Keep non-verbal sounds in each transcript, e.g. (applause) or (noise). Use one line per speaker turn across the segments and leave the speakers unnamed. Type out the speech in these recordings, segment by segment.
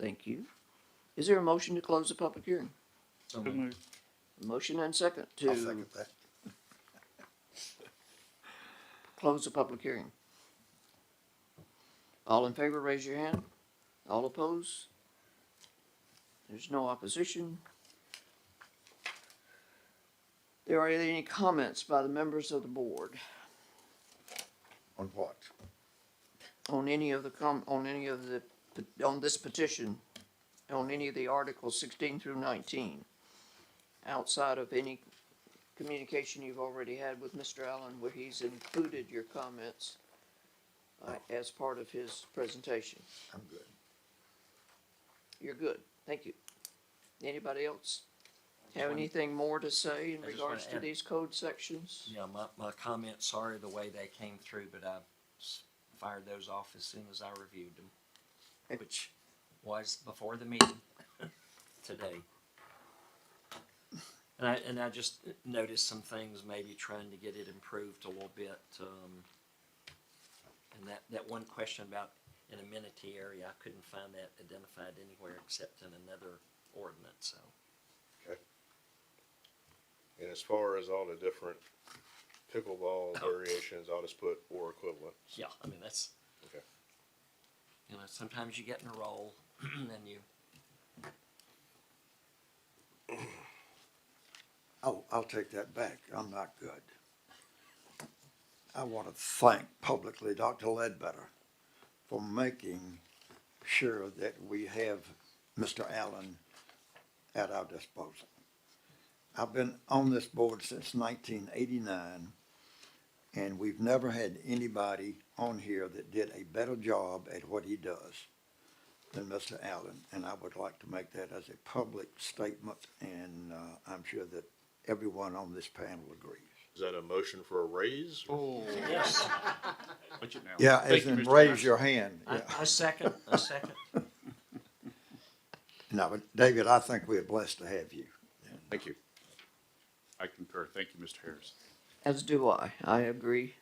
Thank you. Is there a motion to close the public hearing?
So
So
Mm-hmm.
moved.
moved.
Motion and second
I'll
to
second that.
(laughs) close the public hearing. All in favor, raise your hand. All opposed? There's no opposition. There are any comments by the members of the board
On what?
on any of the com, on any of the, on this petition, on any of the articles sixteen through nineteen, outside of any communication you've already had with Mr. Allen where he's included your comments uh, as part of his presentation.
I'm good.
You're good. Thank you. Anybody else have
wanna-
anything more to say in
I just wanna
regards to
add-
these code sections?
Yeah, my, my comment, sorry the way they came through, but I s- fired those off as soon as I reviewed them, which was before the meeting (laughs) today. And I, and I just noticed some things, maybe trying to get it improved a little bit, um, and that, that one question about an amenity area, I couldn't find that identified anywhere except in another ordinance, so.
And as far as all the different
Oh.
pickleball variations, I'll just put or equivalent.
Yeah, I mean, that's.
Okay.
You know, sometimes you get in a role (clears throat) and you,
I'll, I'll take that back. I'm not good. I want to thank publicly Dr. Ledbetter for making sure that we have Mr. Allen at our disposal. I've been on this board since nineteen eighty-nine, and we've never had anybody on here that did a better job at what he does than Mr. Allen, and I would like to make that as a public statement, and, uh, I'm sure that everyone on this panel agrees.
Is that a motion for a raise?
Oh.
yes,
Put it down.
Yeah,
Thank
as
you,
in
Mr.
raise
Vice.
your hand,
I,
yeah.
I second, I (laughs) second.
No, but David, I think we're blessed to have you.
Thank you. I concur. Thank you, Mr. Harris.
As do I. I agree.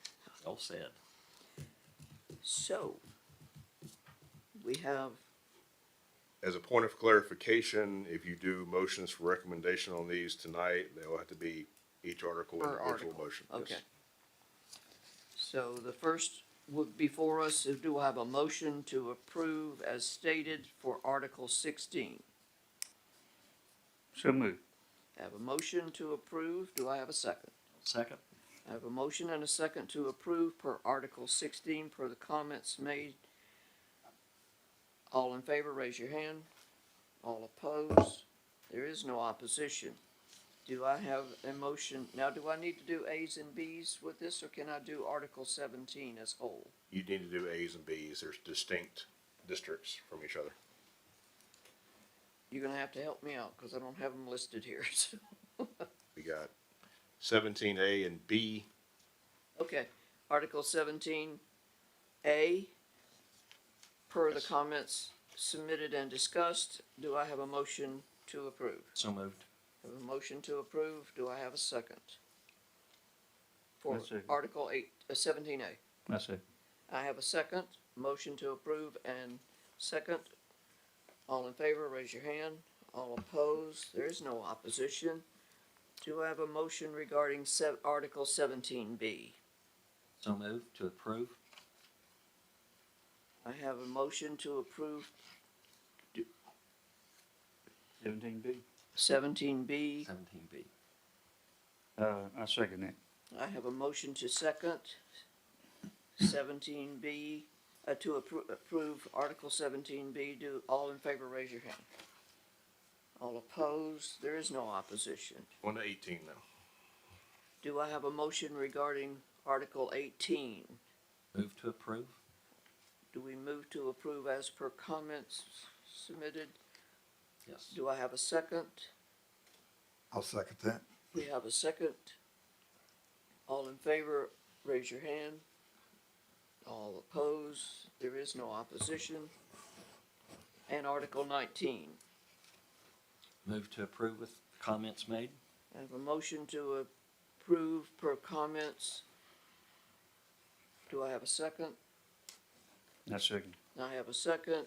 All said.
So, we have
As a point of clarification, if you do motions for recommendation on these tonight, they will have to be each article
Per
individual
article.
motion. Yes.
Okay. So the first would, before us, is do I have a motion to approve as stated for Article sixteen?
So moved.
I have a motion to approve, do I have a second?
Second,
I have a motion and a second to approve per Article sixteen per the comments made. All in favor, raise your hand. All opposed, there is no opposition. Do I have a motion, now do I need to do As and Bs with this, or can I do Article seventeen as whole?
You need to do As and Bs. There's distinct districts from each other.
You're gonna have to help me out, cause I don't have them listed here, (laughs) so,
We got seventeen A and B.
okay, Article seventeen A. Per the
Yes.
comments submitted and discussed, do I have a motion to approve?
so moved.
Have a motion to approve, do I have a second? For
I'll second.
Article eight, uh, seventeen A,
I see.
I have a second, motion to approve and second. All in favor, raise your hand, all opposed, there is no opposition. Do I have a motion regarding se- Article seventeen B?
So moved to approve.
I have a motion to approve
Seventeen B.
seventeen B,
Seventeen B.
Uh, I second that.
I have a motion to second seventeen B, uh, to appro- approve Article seventeen B, do, all in favor, raise your hand. All opposed, there is no opposition.
One to eighteen now.
Do I have a motion regarding Article eighteen?
Move to approve.
Do we move to approve as per comments submitted?
Yes.
Do I have a second?
I'll second that.
We have a second. All in favor, raise your hand. All opposed, there is no opposition. And Article nineteen,
Move to approve with comments made.
I have a motion to approve per comments. Do I have a second?
I second.
I have a second.